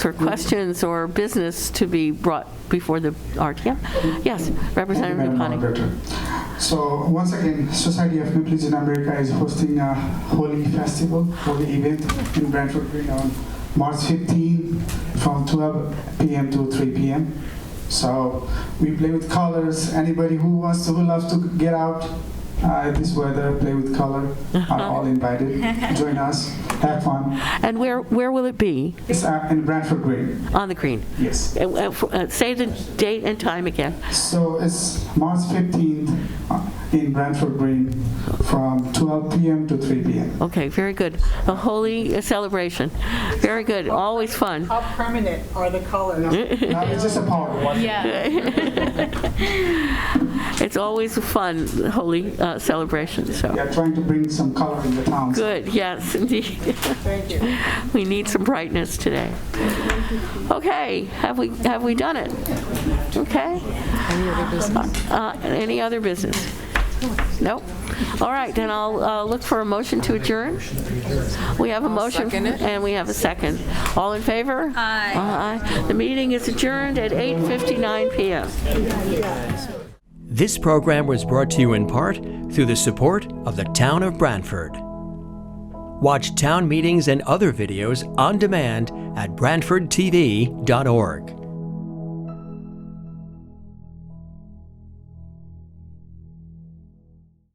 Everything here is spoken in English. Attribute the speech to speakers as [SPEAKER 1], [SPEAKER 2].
[SPEAKER 1] for questions or business to be brought before the RTM. Yes, Representative
[SPEAKER 2] Madam
[SPEAKER 1] Dupont.
[SPEAKER 2] Moderator. So once again, Society of Nepalese in America is hosting a holy festival, holy event in Brantford Green on March 15 from 12 p.m. to 3 p.m. So we play with colors. Anybody who wants to, who loves to get out uh, this weather, play with color, are all invited. Join us. Have fun.
[SPEAKER 1] And where, where will it be?
[SPEAKER 2] It's uh, in Brantford Green.
[SPEAKER 1] On the green.
[SPEAKER 2] Yes.
[SPEAKER 1] Uh, uh, f- uh, Say the date and time again.
[SPEAKER 2] So it's March 15th uh, in Brantford Green from 12 p.m. to 3 p.m.
[SPEAKER 1] Okay, very good. A holy uh, celebration. Very good, always fun.
[SPEAKER 3] How permanent are the colors?
[SPEAKER 2] Now it's just a PowerPoint.
[SPEAKER 4] Yeah.
[SPEAKER 1] It's always a fun, holy uh, celebration,
[SPEAKER 2] We
[SPEAKER 1] so.
[SPEAKER 2] are trying to bring some color in the town.
[SPEAKER 1] Good, yes, indeed.
[SPEAKER 3] Thank you.
[SPEAKER 1] We need some brightness today. Okay, have we, have we done it? Okay. Uh, Any other business? Nope. All right, then I'll uh, look for a motion to adjourn. We have a motion, and we have a second. All in favor? Aye. Aye. The meeting is adjourned at 8:59 PM.
[SPEAKER 5] This program was brought to you in part through the support of the Town of Brantford. Watch town meetings and other videos on demand at BrantfordTV.org.